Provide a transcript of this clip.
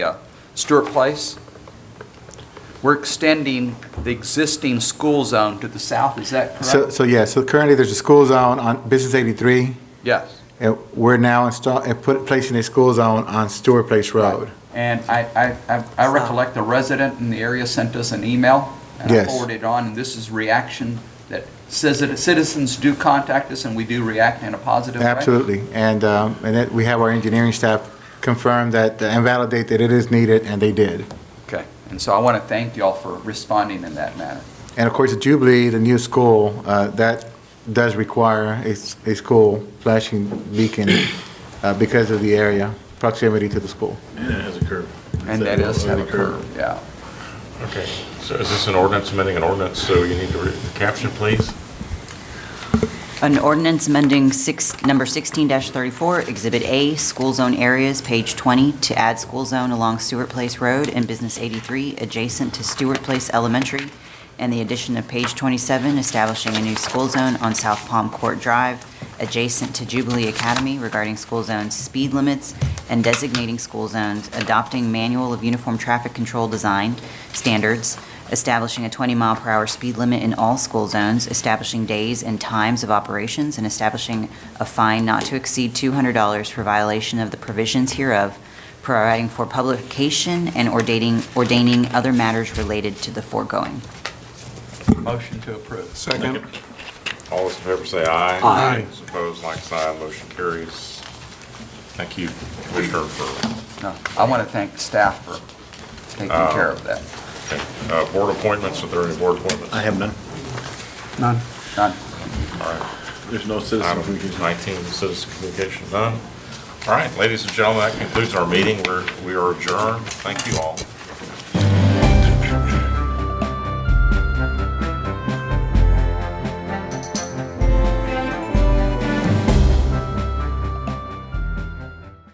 Stewart Place. We're extending the existing school zone to the south, is that So, correct? so yeah, so currently there's a school zone on Business 83, Yes. and we're now install, and put, placing a school zone on Stewart Place Road. And I, I- I, I recollect the resident in the area sent us an email. And I Yes. forwarded it on, and this is reaction that says that citizens do contact us and we do react in a positive way. Absolutely, and, um, and that, we have our engineering staff confirm that, uh, and validate that it is needed, and they did. Okay, and so I want to thank y'all for responding in that manner. And of course, the Jubilee, the new school, uh, that does require a, s- a school flashing beacon uh, because of the area, proximity to the school. And it has a curve. And that is have a curve, yeah. Okay, so is this an ordinance, amending an ordinance, so you need to read the caption, please? An ordinance amending six, number 16-34, Exhibit A, School Zone Areas, page 20, to add school zone along Stewart Place Road and Business 83, adjacent to Stewart Place Elementary, and the addition of page 27, establishing a new school zone on South Palm Court Drive, adjacent to Jubilee Academy regarding school zone speed limits and designating school zones, adopting manual of uniform traffic control design standards, establishing a 20-mile-per-hour speed limit in all school zones, establishing days and times of operations, and establishing a fine not to exceed $200 for violation of the provisions hereof, providing for publication and ordaining, ordaining other matters related to the foregoing. Motion to approve. Second. All those in favor say aye. Aye. Those Opposed, like sign, motion carries. Thank you, Commissioner, for, No, I want to thank staff for taking care of that. uh, board appointments, are there any board appointments? I have none. None. Done. All right, There's no citizen item communication. 19, citizen communication, none. All right, ladies and gentlemen, that concludes our meeting, we're, we are adjourned, thank you all.